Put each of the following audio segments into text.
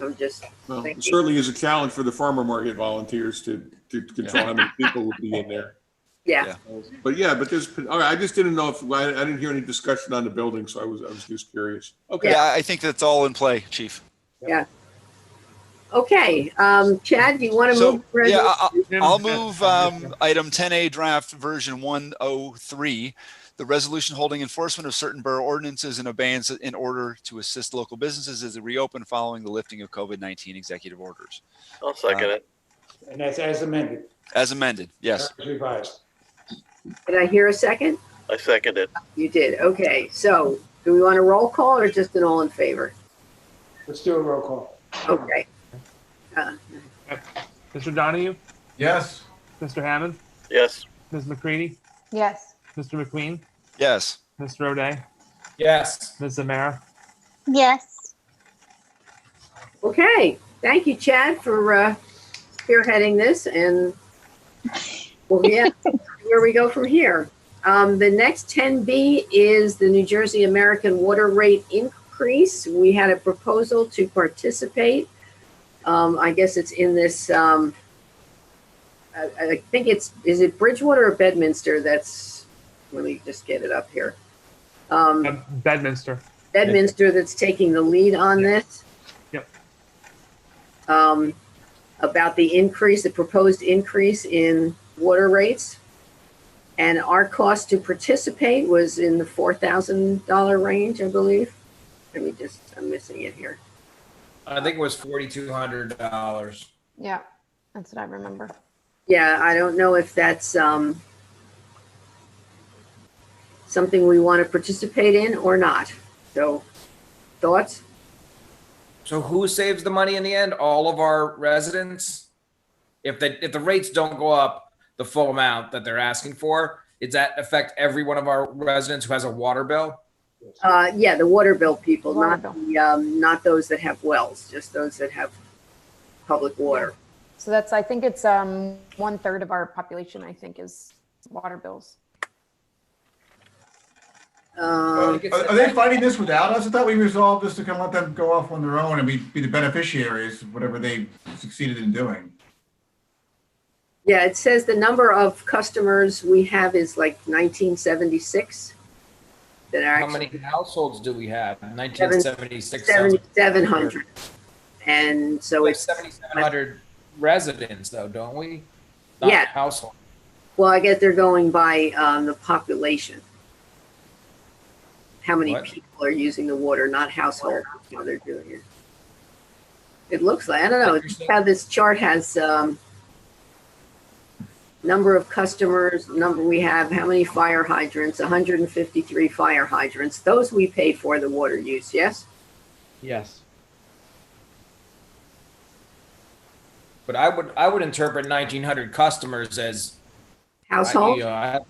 I'm just Well, Thank it you. certainly is a challenge for the farmer market volunteers to, to control how many people would be in there. yeah. Yeah. But yeah, but there's, all right, I just didn't know if, I, I didn't hear any discussion on the building, so I was, I was just curious. Okay, Yeah, I think that's all in play, chief. Okay, um, Chad, do you want to So, move? the yeah, I- resolution? uh, I'll move um, item 10A draft version 103, the resolution holding enforcement of certain borough ordinances in abeyance in order to assist local businesses as they reopen following the lifting of COVID-19 executive orders. I'll second it. And that's as amended. As amended, yes. Uh, As Revised. Did I hear a second? I second it. You did. Okay, so do we want a roll call or just an all in favor? Let's do a roll call. Okay, Mr. Donahue, Yes. Mr. Hammond, Yes, Ms. McCready, Yes. Mr. McQueen, Yes. Mr. O'Day, Yes. Ms. Zamara. Yes. okay. Thank you, Chad, for uh, spearheading this and, well, yeah, where we go from here. Um, the next 10B is the New Jersey American Water Rate Increase. We had a proposal to participate. Um, I guess it's in this, um, I, I think it's, is it Bridgewater or Bedminster? That's, let me just get it up here. Um, Uh, Bedminster. Bedminster that's taking the lead on this. Yep. Um, about the increase, the proposed increase in water rates. And our cost to participate was in the four thousand dollar range, I believe. Let me just, I'm missing it here. I think it was forty-two hundred dollars. Yeah, that's what I remember. Yeah, I don't know if that's, um, something we want to participate in or not. So, thoughts? So who saves the money in the end? All of our residents? If the, if the rates don't go up the full amount that they're asking for, does that affect every one of our residents who has a water bill? Uh, yeah, the water bill people, not Water the, um, not those that have wells, just those that have public water. So that's, I think it's um one third of our population, I think, is water bills. Um, Uh, Are are they fighting this without us? I thought we resolved this to kind of let them go off on their own and be, be the beneficiaries of whatever they succeeded in doing. yeah, it says the number of customers we have is like nineteen seventy-six. That are How actually many households do we have? Nineteen seventy-six. seventy-seven hundred. And so Like it's, seventy-seven hundred residents though, don't we? Not Yeah. Household. well, I guess they're going by, um, the population. How many What? people are using the water, not household, how they're doing it. It looks like, I don't know, Interesting. how this chart has, um, number of customers, number we have, how many fire hydrants, hundred and fifty-three fire hydrants. Those we pay for the water use, yes? Yes. But I would, I would interpret nineteen hundred customers as, I, Household? you know, I have-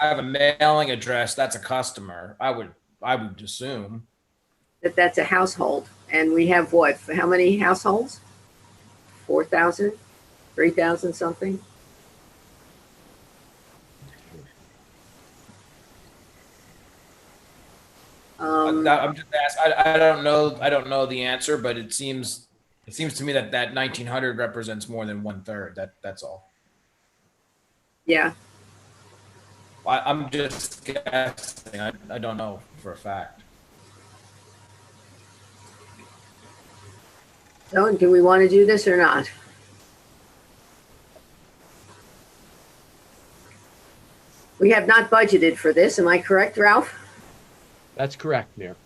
I have a mailing address, that's a customer. I would, I would assume. that that's a household. And we have what, for how many households? 4,000, 3,000 something? Um, I- I'm just asking, I, I don't know, I don't know the answer, but it seems, it seems to me that that nineteen hundred represents more than one third. That, that's all. yeah, I, I'm just guessing. I, I don't know for a fact. so do we want to do this or not? We have not budgeted for this, am I correct, Ralph? That's correct, Mayor.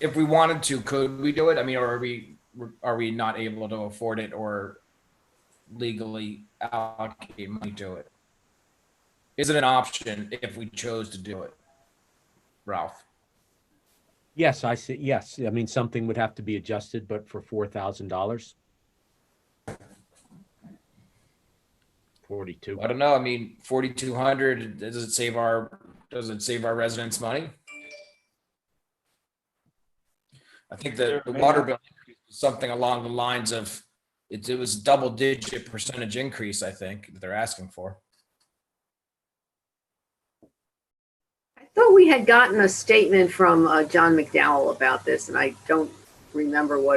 If we wanted to, could we do it? I mean, or are we, are we not able to afford it or legally allocate money to it? Is it an option if we chose to do it? Ralph? Yes, I see. Yes. I mean, something would have to be adjusted, but for four thousand dollars. Forty-two. I don't know. I mean, forty-two hundred, does it save our, does it save our residents money? I think the, the water bill increase was something along the lines of, it, it was double-digit percentage increase, I think, that they're asking for. I thought we had gotten a statement from uh, John McDowell about this, and I don't remember what